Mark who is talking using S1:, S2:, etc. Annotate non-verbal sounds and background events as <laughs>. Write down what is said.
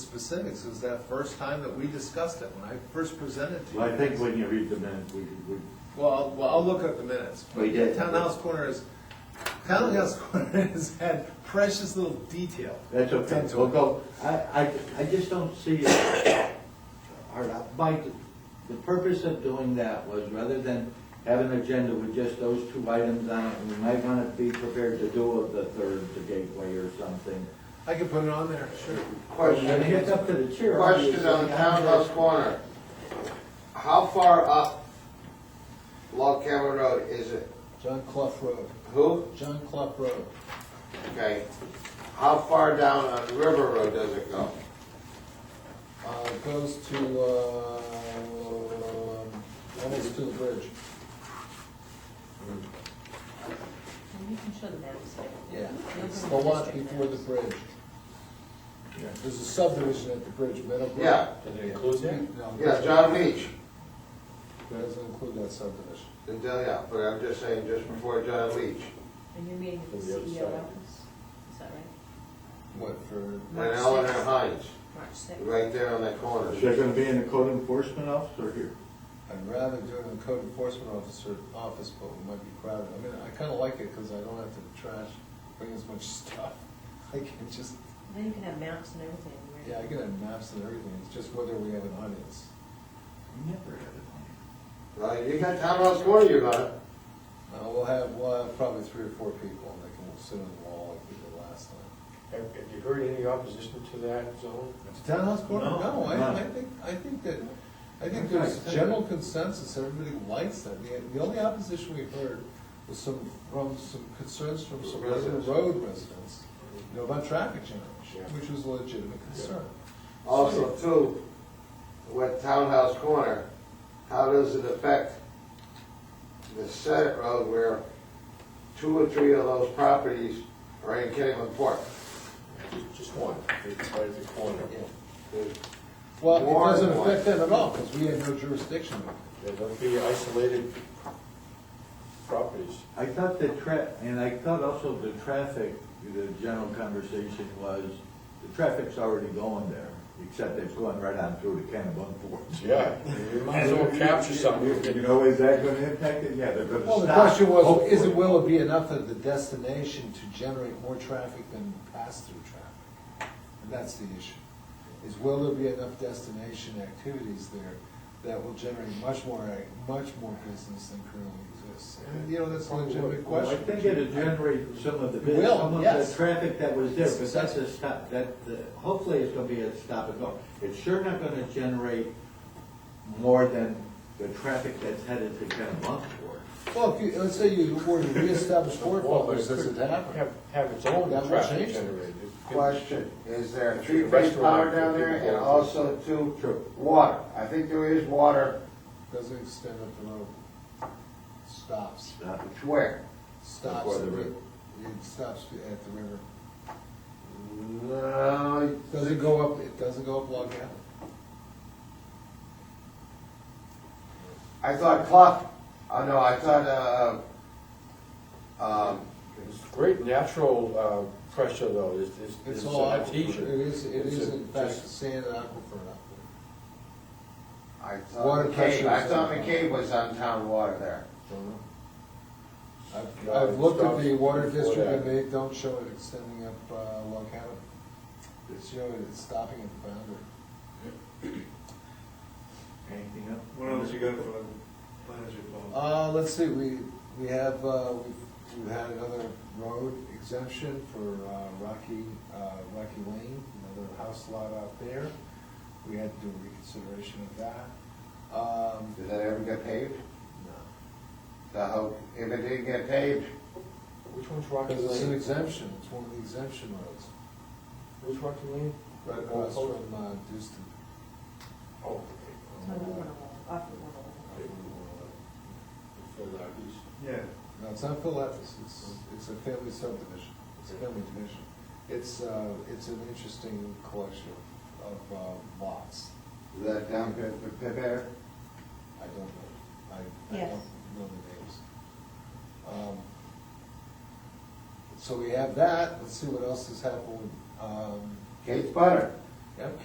S1: specifics, it was that first time that we discussed it, when I first presented to you.
S2: Well, I think when you read the minutes, we, we,
S1: Well, I'll- well, I'll look at the minutes. but
S2: We did.
S1: Townhouse Corner is, Townhouse Corner <laughs> has had precious little detail.
S2: that's okay,
S1: done to
S2: we'll
S1: it.
S2: go, I, I, I just don't see it. All right, Mike, the purpose of doing that was rather than have an agenda with just those two items on it, and we might wanna be prepared to do of the third, the gateway or something.
S1: I could put it on there, sure.
S2: I mean, it's up to the chair.
S3: Question on
S2: obviously.
S3: Townhouse Corner. How far up Log Cabin Road is it?
S4: John Clough Road,
S3: Who?
S4: John Clough Road.
S3: Okay. How far down on River Road does it go?
S4: Uh, it goes to, uh, almost to the bridge.
S5: You can show the maps.
S4: Yeah. It's the lot before the bridge. There's a subdivision at the bridge, Meadowbrook.
S3: Yeah.
S6: Does it include that?
S4: No,
S3: Yeah, John Beach.
S4: That doesn't include that subdivision.
S3: Then, yeah, but I'm just saying, just before John Leach.
S5: And you're meeting with the
S2: On the
S5: CEO
S2: other side.
S5: office, is that right?
S4: What, for?
S3: And
S5: March
S3: Eleanor
S5: sixth.
S3: Hines,
S5: March sixth.
S3: right there on that corner.
S2: Is that gonna be in the code enforcement office or here?
S4: I'd rather do it in the code enforcement officer, office, but it might be crowded. I mean, I kinda like it, cause I don't have to trash, bring as much <laughs> stuff. I can just,
S5: Then you can have maps and everything, right?
S4: yeah, I can have maps and everything, it's just whether we have an audience.
S2: Never had it
S3: Well, you got Townhouse Corner, you got it.
S4: Uh, we'll have, we'll have probably three or four people, and they can sit on the wall like we did last time.
S6: Have have you heard any opposition to that zone?
S4: The Townhouse corner, no,
S2: No.
S4: I, I think, I think that, I think
S2: Okay.
S4: there's general consensus, everybody likes that. The, the only opposition we heard was some, from some concerns from some
S3: Residents.
S4: road residents, you know, about traffic jam,
S6: Yeah.
S4: which was a legitimate concern.
S3: Also, too, with Townhouse Corner, how does it affect the Senate Road where two or three of those properties are in Kennebunk Park?
S6: Just- Just one, it's right at the corner.
S4: Well, it
S3: Warren
S4: doesn't
S3: one.
S4: affect them at all, because we have no jurisdiction.
S6: There don't be isolated properties.
S2: I thought the tra, and I thought also the traffic, the general conversation was, the traffic's already going there, except it's going right on through to Kennebunk.
S6: Yeah, you might as well capture something.
S2: You know, is that gonna impact it? Yeah, they're gonna stop.
S4: Well, the question was, is it,
S2: hopefully.
S4: will it be enough of the destination to generate more traffic than pass-through traffic? And that's the issue, is will there be enough destination activities there that will generate much more, much more business than currently exists? And, you know, that's a legitimate
S2: Well, I
S4: question.
S2: think it'll generate some of the,
S4: It will,
S2: some of the
S4: yes.
S2: traffic that was there, but that's
S4: Exactly.
S2: a stop, that, uh, hopefully it's gonna be a stop and go. It's sure not gonna generate more than the traffic that's headed to Kennebunk for.
S4: Well, if you, let's say you were to <laughs> reestablish Fort
S6: Well, but
S4: Butler's,
S6: it
S4: does it
S6: could
S4: happen?
S6: Have, have its own
S4: That will
S6: traffic
S4: change it.
S6: generated.
S3: Question, is there
S6: If the
S3: three-phase
S6: restaurant
S3: power down
S6: could be
S3: there and
S6: involved.
S3: also too
S2: True.
S3: water? I think there is water,
S4: Doesn't extend up the road. Stops,
S2: Stop.
S3: where?
S4: stops,
S2: Before the
S4: at the-
S2: river.
S4: it stops at the river.
S3: No,
S4: Doesn't go up, it doesn't go up Log Cabin.
S3: I thought Clough, oh no, I thought, uh, um,
S6: It's great natural uh, pressure though, it's, it's.
S4: It's
S6: a
S4: all aquifer. It
S6: artesian.
S4: is, it
S6: It's
S4: is
S6: a-
S4: in fact
S6: uh, just-
S4: sand and aquifer up there.
S3: I thought
S4: Water
S3: McCabe,
S4: pressure
S3: I
S4: is-
S3: thought McCabe was on town water there.
S4: Don't know. I've,
S6: No,
S4: I've
S6: it
S4: looked at the
S6: stops
S4: water
S6: before
S4: district and
S6: that.
S4: they don't show it extending up uh, Log Cabin. They show it, it's stopping at the boundary.
S2: Anything else?
S7: What else you got for the planners report?
S4: Uh, let's see, we, we have, uh, we've- we've had another road exemption for uh, Rocky, uh, Rocky Lane, another house lot out there. We had to do a reconsideration of that. Um,
S3: Did that ever get paved?
S4: no.
S3: The whole, if it didn't get paved,
S6: Which one's Rocky
S4: Because it's an
S6: Lane?
S4: exemption, it's one of the exemption roads,
S6: Which Rocky Lane?
S4: right across from uh, Dewston.
S6: Oh. okay.
S5: So we wanna walk off the wall.
S6: They were, uh, the Philadelphia's.
S7: Yeah,
S4: No, it's not Philadelphia's, it's, it's a family subdivision, it's a family division. It's, uh, it's an interesting collection of uh, lots,
S3: is that down good for prepare?
S4: I don't know, I, I
S5: Yes.
S4: don't know the names. Um, So we have that, let's see what else has happened, um,
S3: Kate's butter.
S4: yep.